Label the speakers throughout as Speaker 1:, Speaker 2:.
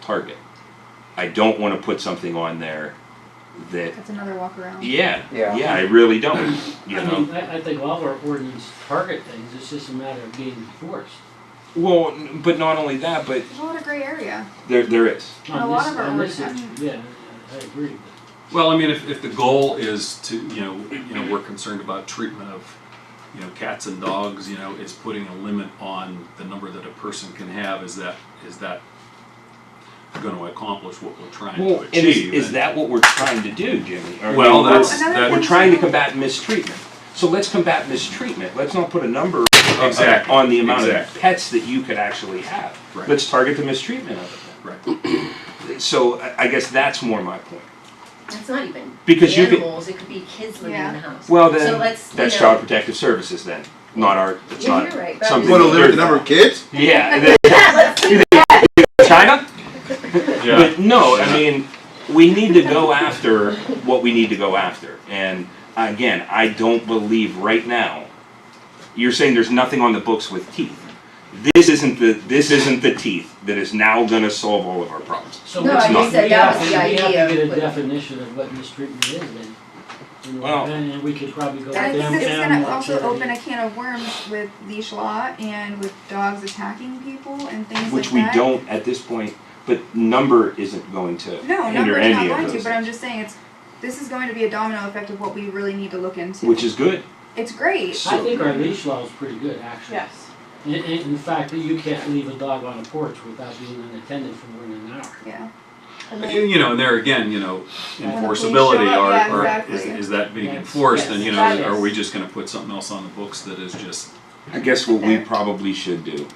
Speaker 1: target. I don't want to put something on there that,
Speaker 2: That's another walk around.
Speaker 1: yeah,
Speaker 3: Yeah.
Speaker 1: yeah, I really don't, you
Speaker 4: I
Speaker 1: know?
Speaker 4: mean, I, I think all our ordinance target things, it's just a matter of being enforced.
Speaker 1: Well, n- but not only that, but
Speaker 2: There's Oh, a lot of gray area.
Speaker 1: there, there is.
Speaker 2: And a
Speaker 4: On
Speaker 2: lot
Speaker 4: this-
Speaker 2: of our
Speaker 4: on this
Speaker 2: ordinance-
Speaker 4: issue, Yeah, I I agree,
Speaker 5: Well, I mean, if, if the goal is to, you know, you know, we're concerned about treatment of, you know, cats and dogs, you know, is putting a limit on the number that a person can have, is that, is that gonna accomplish what we're trying to
Speaker 1: Well, and is,
Speaker 5: achieve?
Speaker 1: is
Speaker 5: And-
Speaker 1: that what we're trying to do, Jimmy? Or-
Speaker 5: Well,
Speaker 1: we're-
Speaker 5: that's,
Speaker 2: another
Speaker 5: that,
Speaker 1: We're
Speaker 2: thing-
Speaker 1: trying to combat mistreatment. So let's combat mistreatment. Let's not put a number uh,
Speaker 5: Exactly,
Speaker 1: on the amount of
Speaker 5: exactly.
Speaker 1: pets that you could actually have.
Speaker 5: Right.
Speaker 1: Let's target the mistreatment of
Speaker 5: right,
Speaker 1: it. So I- I guess that's more my point.
Speaker 6: That's not even
Speaker 1: Because you could-
Speaker 6: animals, it could be kids living in the house.
Speaker 1: Well, then
Speaker 6: So let's, you
Speaker 1: that's
Speaker 6: know-
Speaker 1: Child Protective Services then, not our. It's
Speaker 6: Yeah,
Speaker 1: not
Speaker 6: you're right, but I'm
Speaker 1: something.
Speaker 6: just-
Speaker 7: Want to
Speaker 1: that
Speaker 7: limit the
Speaker 1: they're-
Speaker 7: number of kids?
Speaker 1: Yeah. and then- China.
Speaker 5: yeah,
Speaker 1: But no, I mean, we need to go after what we need to go after. And again, I don't believe right now, you're saying there's nothing on the books with teeth. This isn't the, this isn't the teeth that is now gonna solve all of our problems.
Speaker 4: So
Speaker 6: No,
Speaker 4: it's
Speaker 1: I just
Speaker 4: not-
Speaker 1: said
Speaker 4: we
Speaker 6: that
Speaker 4: have
Speaker 6: was
Speaker 4: to-
Speaker 6: the
Speaker 4: We have to
Speaker 6: idea,
Speaker 4: get
Speaker 6: but-
Speaker 4: a definition of what mistreatment is then. You know,
Speaker 1: Well-
Speaker 4: And and we could probably go
Speaker 2: I
Speaker 4: down,
Speaker 2: think this is
Speaker 4: down
Speaker 2: gonna
Speaker 4: that
Speaker 2: also
Speaker 4: area.
Speaker 2: open a can of worms with leash law and with dogs attacking people and things
Speaker 1: Which we
Speaker 2: like that.
Speaker 1: don't at this point, but number isn't going to
Speaker 2: No,
Speaker 1: hinder
Speaker 2: numbers not
Speaker 1: any of
Speaker 2: going to,
Speaker 1: those.
Speaker 2: but I'm just saying it's this is going to be a domino effect of what we really need to look into.
Speaker 1: Which is good.
Speaker 2: it's great.
Speaker 4: I think our leash law is pretty good, actually.
Speaker 8: Yes.
Speaker 4: In, in, in fact, you can't leave a dog on a porch without being an attendant for more than an hour.
Speaker 2: Yeah.
Speaker 8: And
Speaker 5: You-
Speaker 8: then,
Speaker 5: you know, and there again, you know,
Speaker 4: When
Speaker 2: the police
Speaker 5: enforceability,
Speaker 2: show up,
Speaker 5: are,
Speaker 2: yeah,
Speaker 5: are, is,
Speaker 2: exactly.
Speaker 5: is that being
Speaker 4: Yes,
Speaker 5: enforced, and you know,
Speaker 8: yes.
Speaker 5: are we just gonna put something else on the books that is just,
Speaker 1: I guess what we probably should do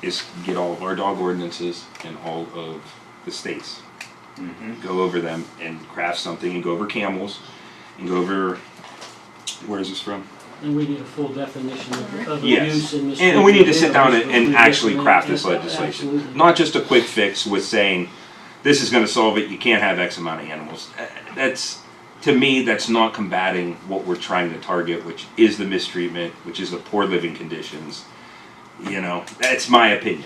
Speaker 1: is get all of our dog ordinances and all of the states. Go over them and craft something and go over camels and go over, where is this from?
Speaker 4: And we need a full definition of, of
Speaker 1: Yes.
Speaker 4: abuse and mistreatment.
Speaker 1: And we need to sit down and,
Speaker 4: animals,
Speaker 1: and
Speaker 4: we
Speaker 1: actually
Speaker 4: recommend-
Speaker 1: craft this
Speaker 4: yeah,
Speaker 1: legislation.
Speaker 4: absolutely.
Speaker 1: Not just a quick fix with saying, this is gonna solve it, you can't have X amount of animals. Uh, That's, to me, that's not combating what we're trying to target, which is the mistreatment, which is the poor living conditions. You know, that's my opinion.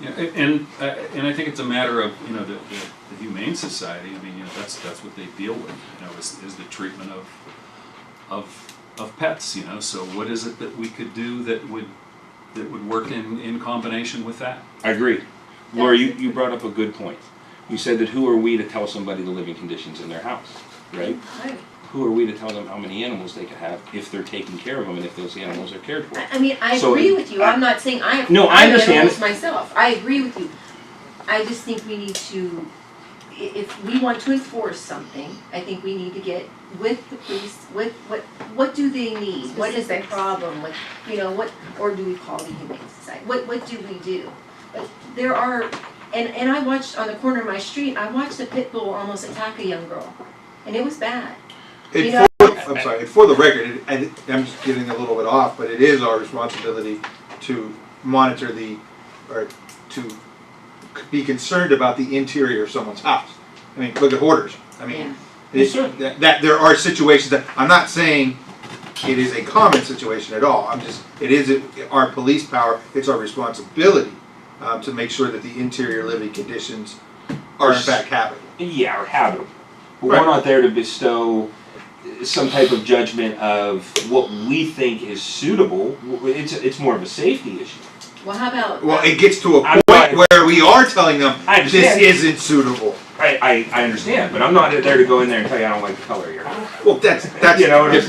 Speaker 5: Yeah, a- and, uh, and I think it's a matter of, you know, the, the the Humane Society, I mean, you know, that's, that's what they deal with, you know, is, is the treatment of, of, of pets, you know, so what is it that we could do that would, that would work in, in combination with that?
Speaker 1: I agree. Laura, you, you brought up a good point. You said that who are we to tell somebody the living conditions in their house, right?
Speaker 6: I-
Speaker 1: Who are we to tell them how many animals they could have if they're taking care of them and if those animals are cared for?
Speaker 6: I, I mean, I
Speaker 1: So-
Speaker 6: agree with you, I'm not saying I,
Speaker 1: No, I
Speaker 6: I'm
Speaker 1: understand.
Speaker 6: animals myself, I agree with you. I just think we need to, i- if we want to enforce something, I think we need to get with the police, with what, what do they need? What is the
Speaker 2: Specifics.
Speaker 6: problem, what, you know, what, or do we call the humane society, what, what do we do? But there are, and, and I watched on the corner of my street, I watched a pit bull almost attack a young girl, and it was bad.
Speaker 7: And
Speaker 6: You know-
Speaker 7: for- I'm sorry, and for the record, it- and I'm just getting a little bit off, but it is our responsibility to monitor the, or to c- be concerned about the interior of someone's house. I mean, look at hoarders. I
Speaker 6: Yeah.
Speaker 7: mean,
Speaker 1: Yes, sir.
Speaker 7: it- that, that there are situations that, I'm not saying it is a common situation at all. I'm just, it is a- our police power, it's our responsibility um, to make sure that the interior living conditions are in fact habitable.
Speaker 1: Yeah, or habitable. But
Speaker 7: Right.
Speaker 1: we're not there to bestow some type of judgment of what we think is suitable. It's, it's more of a safety issue.
Speaker 6: Well, how about?
Speaker 7: Well, it gets to a
Speaker 1: I'm
Speaker 7: point
Speaker 1: not-
Speaker 7: where we are telling them
Speaker 1: I
Speaker 7: this
Speaker 1: understand.
Speaker 7: isn't suitable.
Speaker 1: I, I, I understand, but I'm not there to go in there and tell you I don't like the color of your house.
Speaker 7: Well, that's that's
Speaker 1: You know what I'm
Speaker 7: a different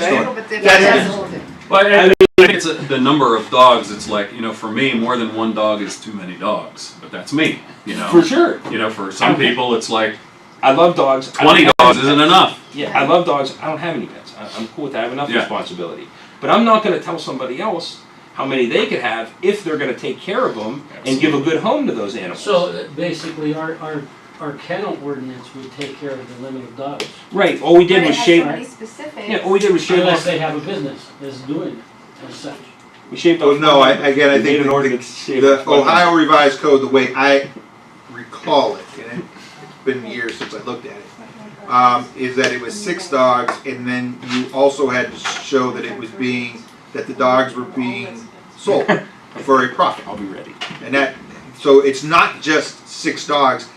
Speaker 2: It's a
Speaker 1: saying?
Speaker 2: little
Speaker 7: story.
Speaker 2: bit different.
Speaker 6: Yeah,
Speaker 7: That's-
Speaker 6: that's a whole different.
Speaker 5: Well, I, I think it's a, the number of dogs, it's like, you know, for me, more than one dog is too many dogs, but that's me, you
Speaker 1: For
Speaker 5: know?
Speaker 1: sure.
Speaker 5: You know, for some people, it's like
Speaker 1: I love dogs. I
Speaker 5: twenty
Speaker 1: don't-
Speaker 5: dogs isn't enough.
Speaker 1: Yeah, I love dogs. I don't have any pets. I, I'm cool with that. I have enough
Speaker 5: Yeah.
Speaker 1: responsibility. But I'm not going to tell somebody else how many they could have if they're going to take care of them and give a good home to those animals.
Speaker 4: So uh, basically, our, our, our kennel ordinance would take care of the limit of dogs,
Speaker 1: right. All we
Speaker 2: But
Speaker 1: did
Speaker 2: it
Speaker 1: was
Speaker 2: has
Speaker 1: shave.
Speaker 2: so many specifics.
Speaker 1: Yeah, all we did was shave.
Speaker 4: unless
Speaker 1: Off,
Speaker 4: they have a business that's doing it as such.
Speaker 1: we shaved.
Speaker 7: Well,
Speaker 1: off-
Speaker 7: Oh, no, I, again, I
Speaker 1: we made
Speaker 7: think
Speaker 1: an
Speaker 7: the,
Speaker 1: ordinance. to shave
Speaker 7: the
Speaker 1: off-
Speaker 7: Ohio Revised Code, the way I recall it, and it, it's been years since I looked at it, um, is that it was six dogs, and then you also had to show that it was being that the dogs were being sold for a profit,
Speaker 1: I'll be ready.
Speaker 7: and that
Speaker 3: So it's not just six dogs